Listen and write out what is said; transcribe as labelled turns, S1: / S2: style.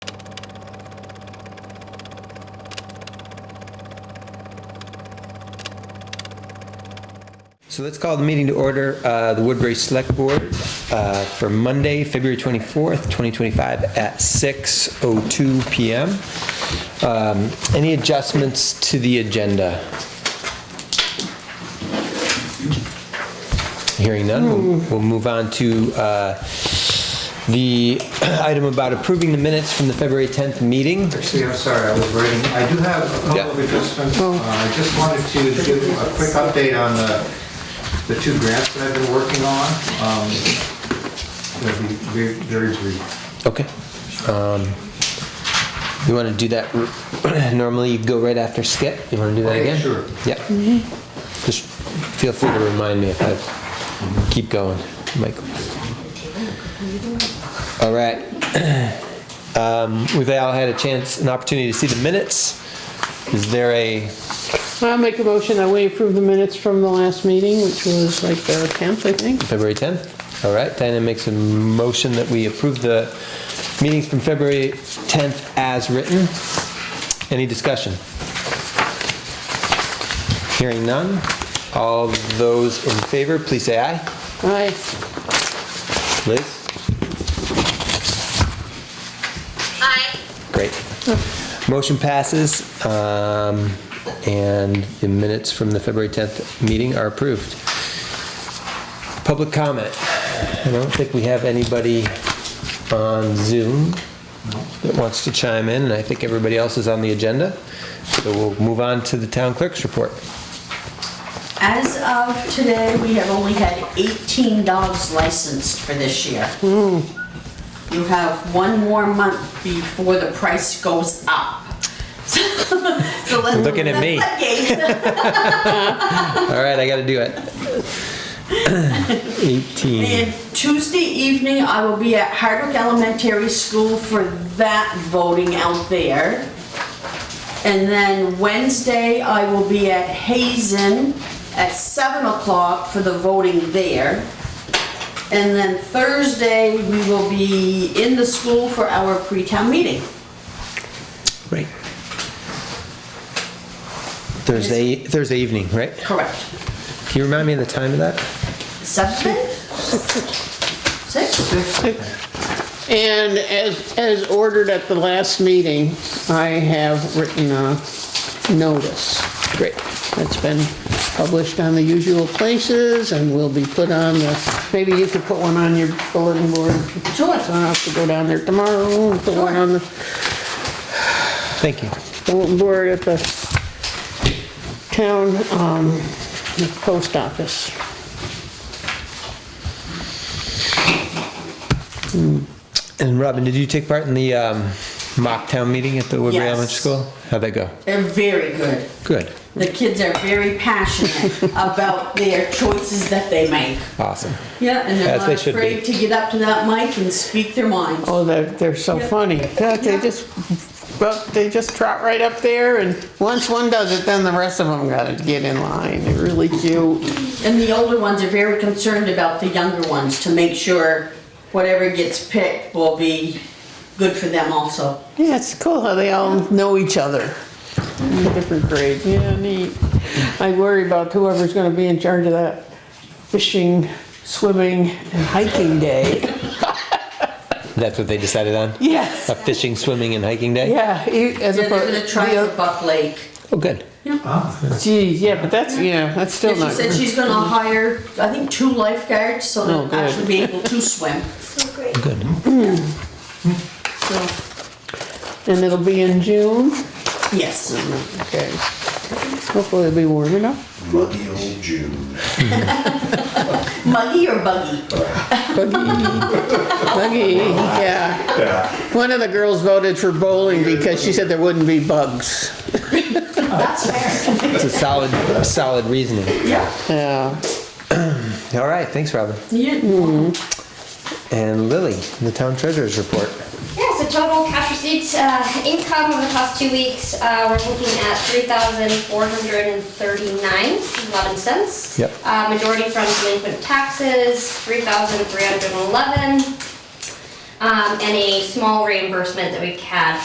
S1: So let's call the meeting to order, uh, the Woodbury Select Board uh, for Monday, February 24th, 2025 at 6:02 PM. Um, Any adjustments to the agenda? Hearing none, we'll- we'll move on to uh, the item about approving the minutes from the February 10th meeting.
S2: Actually, I'm sorry, I was writing, I do have a
S1: Yeah.
S2: couple of adjustments. Uh, I just wanted to give a quick update on the, the two grants that I've been working on. Um, They'll be very, very brief.
S1: Okay. Um, You want to do that, r- normally you go right after Skip, you want to do that
S2: Okay,
S1: again?
S2: sure.
S1: Yeah. Just feel free to remind me if I keep going, Michael. All right. Um, We've all had a chance, an opportunity to see the minutes. Is there a,
S3: I'll make a motion that we approve the minutes from the last meeting, which was like the 10th, I think.
S1: February 10th? All right, Diana makes a motion that we approve the meetings from February 10th as written. Any discussion? Hearing none. All those in favor, please say aye.
S3: Aye.
S1: Liz?
S4: Aye.
S1: Great. Motion passes, um, and the minutes from the February 10th meeting are approved. Public comment. I don't think we have anybody on Zoom that wants to chime in, and I think everybody else is on the agenda. So we'll move on to the town clerk's report.
S5: As of today, we have only had 18 dogs licensed for this year. You have one more month before the price goes up. So let-
S1: Looking at me.
S5: Okay.
S1: All right, I gotta do it. 18.
S5: And Tuesday evening, I will be at Hardwick Elementary School for that voting out there. And then Wednesday, I will be at Hazen at 7 o'clock for the voting there. And then Thursday, we will be in the school for our pre-town meeting.
S1: Right. Thursday, Thursday evening, right?
S5: Correct.
S1: Can you remind me of the time of that?
S5: Seven? Six?
S3: And as, as ordered at the last meeting, I have written a notice
S1: Great.
S3: that's been published on the usual places and will be put on the, maybe you could put one on your bulletin board.
S5: Sure.
S3: So I have to go down there tomorrow and put one on the
S1: Thank you.
S3: bulletin board at the town, um, post office.
S1: And Robin, did you take part in the um, mock town meeting at the Woodbury
S5: Yes.
S1: Elementary School? How'd that go?
S5: They're very good.
S1: Good.
S5: The kids are very passionate about their choices that they make.
S1: Awesome.
S5: Yeah, and
S1: As
S5: they're
S1: they
S5: not
S1: should be.
S5: afraid to get up to that mic and speak their minds.
S3: Oh, they're, they're so
S5: Yeah.
S3: funny. Yeah, They
S5: Yeah.
S3: just, well, they just trot right up there and once one does it, then the rest of them gotta get in line. They're really cute.
S5: And the older ones are very concerned about the younger ones to make sure whatever gets picked will be good for them also.
S3: Yeah, it's cool how they all know each other. Different grade, yeah, neat. I worry about whoever's gonna be in charge of that fishing, swimming and hiking day.
S1: That's what they decided on?
S3: Yes,
S1: A fishing, swimming, and hiking day?
S3: yeah. you- as
S5: They're
S3: opposed-
S5: gonna try
S3: the
S5: for
S3: oth-
S5: Buck Lake.
S1: Oh, good.
S2: Ah,
S3: Gee, yeah, but that's, yeah, that's still
S5: She
S3: not.
S5: said she's gonna hire, I think, two lifeguards, so
S3: Oh,
S5: they'll
S3: good.
S5: actually be able to swim.
S1: Good.
S5: So,
S3: And it'll be in June.
S5: yes.
S3: Okay. Hopefully it'll be warm enough.
S6: Muggy old June.
S5: Muggy or buggy?
S3: Buggy. Buggy, yeah.
S6: Yeah.
S3: One of the girls voted for bowling because she said there wouldn't be bugs.
S5: That's fair.
S1: It's a solid, solid reasoning.
S5: Yeah.
S3: Yeah.
S1: All right, thanks, Robin.
S5: Yeah.
S1: And Lily, the town treasurer's report.
S4: Yeah, so total cash receipts, uh, income over the past two weeks, uh, we're looking at three thousand four hundred and thirty-nine, eleven cents.
S1: Yep.
S4: Uh, majority from delinquent taxes, three thousand three hundred and eleven. Um, and a small reimbursement that we had